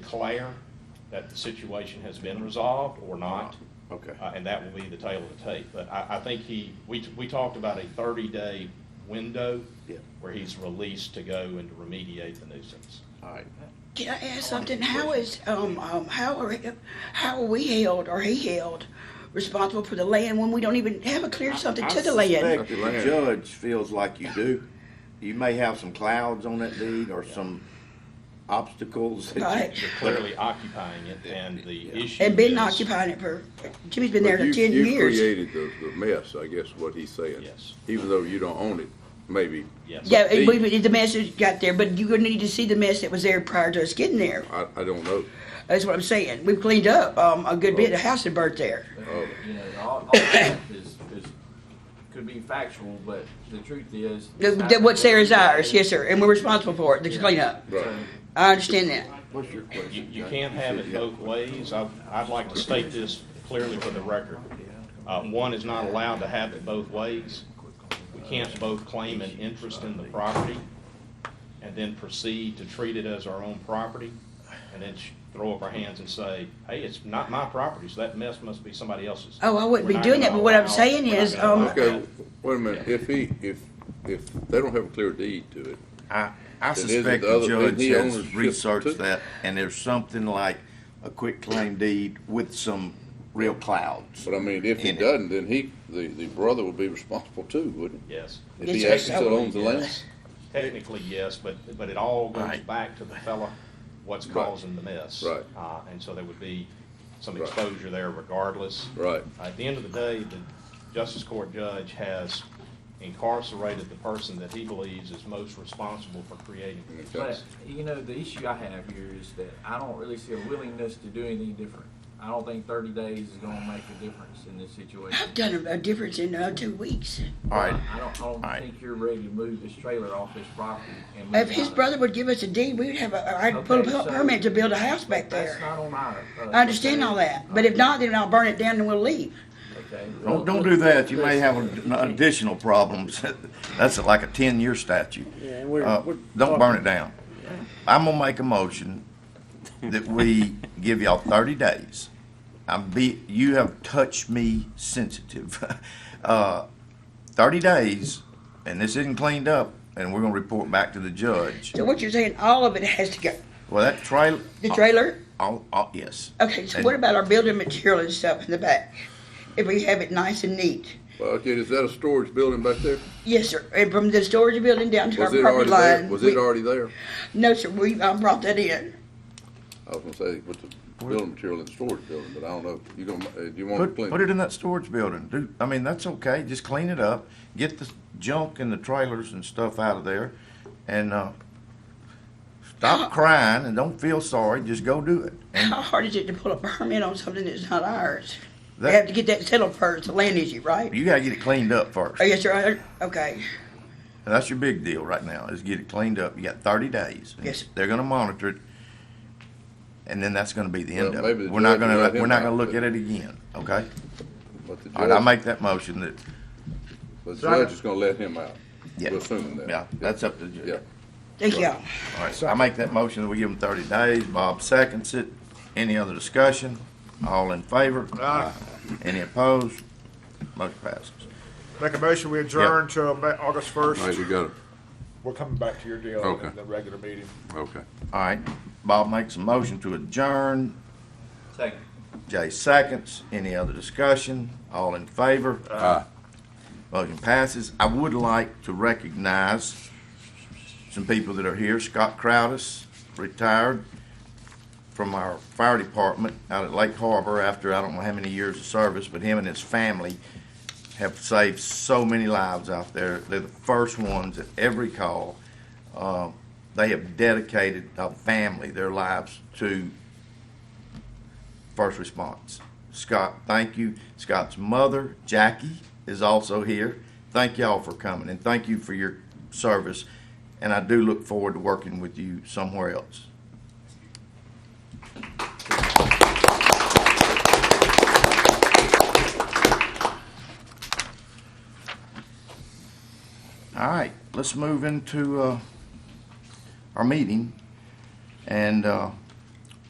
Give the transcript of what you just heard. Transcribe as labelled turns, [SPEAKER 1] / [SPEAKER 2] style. [SPEAKER 1] declare that the situation has been resolved or not.
[SPEAKER 2] Okay.
[SPEAKER 1] Uh, And that will be the tail of the tape. But I, I think he, we, we talked about a 30-day window
[SPEAKER 2] Yeah.
[SPEAKER 1] where he's released to go and to remediate the nuisance.
[SPEAKER 2] All right.
[SPEAKER 3] Can I ask something? How is, um, um, how are, how are we held or he held responsible for the land when we don't even have a clear something to the
[SPEAKER 2] I
[SPEAKER 3] land?
[SPEAKER 2] suspect that the judge feels like you do. You may have some clouds on that deed or some obstacles. that you-
[SPEAKER 3] Right.
[SPEAKER 1] You're clearly occupying it and the issue
[SPEAKER 3] And been
[SPEAKER 1] is-
[SPEAKER 3] occupying it for, Jimmy's been there
[SPEAKER 4] But
[SPEAKER 3] for
[SPEAKER 4] you-
[SPEAKER 3] ten
[SPEAKER 4] You
[SPEAKER 3] years.
[SPEAKER 4] created the, the mess, I guess what he's saying.
[SPEAKER 1] Yes.
[SPEAKER 4] Even though you don't own it, maybe.
[SPEAKER 1] Yes.
[SPEAKER 3] Yeah,
[SPEAKER 4] the-
[SPEAKER 3] and we, we- the mess that got there, but you're gonna need to see the mess that was there prior to us getting there.
[SPEAKER 4] I, I don't know.
[SPEAKER 3] That's what I'm saying. We've cleaned up, um, a good bit. The house had burnt there.
[SPEAKER 4] Oh.
[SPEAKER 5] You know, all, all that is, is, could be factual, but the truth is.
[SPEAKER 3] The- the- What's there is ours, yes, sir, and we're responsible for it, the cleanup.
[SPEAKER 4] Right.
[SPEAKER 3] I understand that.
[SPEAKER 2] What's your question?
[SPEAKER 1] You, you
[SPEAKER 2] Judge?
[SPEAKER 1] can't have it
[SPEAKER 2] Yeah.
[SPEAKER 1] both ways. I, I'd like to state this clearly for the record. Uh, one is not allowed to have it both ways. We can't both claim an interest in the property and then proceed to treat it as our own property and then sh- throw up our hands and say, hey, it's not my property, so that mess must be somebody else's.
[SPEAKER 3] Oh, I wouldn't be
[SPEAKER 1] We're not
[SPEAKER 3] doing that,
[SPEAKER 1] gonna
[SPEAKER 3] but what I'm
[SPEAKER 1] allow-
[SPEAKER 3] saying
[SPEAKER 1] we're not
[SPEAKER 3] is,
[SPEAKER 1] gonna allow
[SPEAKER 3] um,
[SPEAKER 4] Okay,
[SPEAKER 1] that.
[SPEAKER 4] wait a minute. If he, if, if they don't have a clear deed to it,
[SPEAKER 2] I, I
[SPEAKER 4] Then isn't
[SPEAKER 2] suspect
[SPEAKER 4] the
[SPEAKER 2] the
[SPEAKER 4] other-
[SPEAKER 2] judge
[SPEAKER 4] isn't he
[SPEAKER 2] has
[SPEAKER 4] ownership too?
[SPEAKER 2] researched that, and there's something like a quick claim deed with some real clouds.
[SPEAKER 4] but I mean, if he
[SPEAKER 2] In it.
[SPEAKER 4] doesn't, then he, the, the brother would be responsible too, wouldn't he?
[SPEAKER 1] Yes.
[SPEAKER 4] If he
[SPEAKER 3] Yes,
[SPEAKER 4] actually
[SPEAKER 3] sir.
[SPEAKER 4] still owns the land?
[SPEAKER 1] Technically, yes, but, but it all goes
[SPEAKER 2] Right.
[SPEAKER 1] back to the fella, what's
[SPEAKER 4] Right.
[SPEAKER 1] causing the mess.
[SPEAKER 4] Right.
[SPEAKER 1] Uh, and so there would be some
[SPEAKER 4] Right.
[SPEAKER 1] exposure there regardless.
[SPEAKER 4] Right.
[SPEAKER 1] At the end of the day, the Justice Court judge has incarcerated the person that he believes is most responsible for creating the
[SPEAKER 4] Okay.
[SPEAKER 1] mess.
[SPEAKER 5] But, you know, the issue I have here is that I don't really see a willingness to do anything different. I don't think thirty days is gonna make a difference in this situation.
[SPEAKER 3] I've done a, a difference in uh, two weeks.
[SPEAKER 2] All right,
[SPEAKER 5] I don't, I don't
[SPEAKER 2] All right.
[SPEAKER 5] think you're ready to move this trailer off this property and move
[SPEAKER 3] If his
[SPEAKER 5] on.
[SPEAKER 3] brother would give us a deed, we'd have a, I'd
[SPEAKER 5] Okay,
[SPEAKER 3] pull a
[SPEAKER 5] so-
[SPEAKER 3] permit to build a house
[SPEAKER 5] but
[SPEAKER 3] back
[SPEAKER 5] That's
[SPEAKER 3] there.
[SPEAKER 5] not on my. uh,
[SPEAKER 3] I understand all that, but if not, then I'll burn it down and we'll leave.
[SPEAKER 5] Okay.
[SPEAKER 2] don't, don't do that, you may have an additional problems, that's like a ten-year statute.
[SPEAKER 6] Yeah, and we're-
[SPEAKER 2] Uh,
[SPEAKER 6] we're
[SPEAKER 2] Don't burn
[SPEAKER 6] talking-
[SPEAKER 2] it down. I'm gonna make a motion that we give y'all thirty days. I'm be, you have touched me sensitive. Uh, Thirty days, and this isn't cleaned up, and we're gonna report back to the judge.
[SPEAKER 3] So what you're saying, all of it has to go.
[SPEAKER 2] Well, that trail.
[SPEAKER 3] The trailer?
[SPEAKER 2] All, all, uh, yes.
[SPEAKER 3] Okay, so what about our building material and stuff in the back? If we have it nice and neat?
[SPEAKER 4] Well, okay, is that a storage building back there?
[SPEAKER 3] Yes, sir. And from the storage building down to our
[SPEAKER 4] Was it
[SPEAKER 3] property
[SPEAKER 4] already there?
[SPEAKER 3] line.
[SPEAKER 4] Was
[SPEAKER 3] we-
[SPEAKER 4] it already there?
[SPEAKER 3] No, sir, we, I brought that in.
[SPEAKER 4] I was gonna say, with the building material and storage building, but I don't know. You gonna, uh, do you want to
[SPEAKER 2] Put,
[SPEAKER 4] clean?
[SPEAKER 2] put it in that storage building. Do, I mean, that's okay. Just clean it up. Get the junk and the trailers and stuff out of there. And, uh,
[SPEAKER 4] Ah.
[SPEAKER 2] stop crying and don't feel sorry. Just go do it. And
[SPEAKER 3] How hard is it to pull a permit on something that's not ours? They have
[SPEAKER 2] that,
[SPEAKER 3] to get that settled first, the land issue, right?
[SPEAKER 2] you gotta get it cleaned up first.
[SPEAKER 3] Oh, yes, sir. I- Okay.
[SPEAKER 2] That's your big deal right now, is get it cleaned up. You got thirty days.
[SPEAKER 3] Yes.
[SPEAKER 2] They're gonna monitor it. And then that's gonna be the end
[SPEAKER 4] Well,
[SPEAKER 2] of it.
[SPEAKER 4] maybe the
[SPEAKER 2] We're not
[SPEAKER 4] judge will
[SPEAKER 2] gonna,
[SPEAKER 4] let him
[SPEAKER 2] we're not
[SPEAKER 4] out,
[SPEAKER 2] gonna look at
[SPEAKER 4] but-
[SPEAKER 2] it again, okay?
[SPEAKER 4] But the
[SPEAKER 2] All right, I
[SPEAKER 4] judge-
[SPEAKER 2] make that motion that,
[SPEAKER 4] The judge is gonna let him out.
[SPEAKER 2] yeah.
[SPEAKER 4] We're assuming that.
[SPEAKER 2] Yeah, that's up to the judge.
[SPEAKER 4] Yeah.
[SPEAKER 3] Thank y'all.
[SPEAKER 2] All right, I make that motion that we give them thirty days. Bob seconds it. Any other discussion? All in favor? Aye. Any opposed? Motion passes.
[SPEAKER 6] Make a motion, we adjourn till Ma- August first.
[SPEAKER 4] All right, you got it.
[SPEAKER 6] We're coming back to your deal
[SPEAKER 4] Okay.
[SPEAKER 6] in the regular meeting.
[SPEAKER 4] Okay.
[SPEAKER 2] All right, Bob makes a motion to adjourn.
[SPEAKER 5] Second.
[SPEAKER 2] Jay seconds. Any other discussion? All in favor?
[SPEAKER 4] Aye.
[SPEAKER 2] Motion passes. I would like to recognize some people that are here. Scott Crowdis, retired from our fire department out at Lake Harbor after I don't know how many years of service, but him and his family have saved so many lives out there. They're the first ones at every call. Uh, They have dedicated a family, their lives to first response. Scott, thank you. Scott's mother, Jackie, is also here. Thank y'all for coming and thank you for your service. And I do look forward to working with you somewhere else. All right, let's move into uh, our meeting. And uh,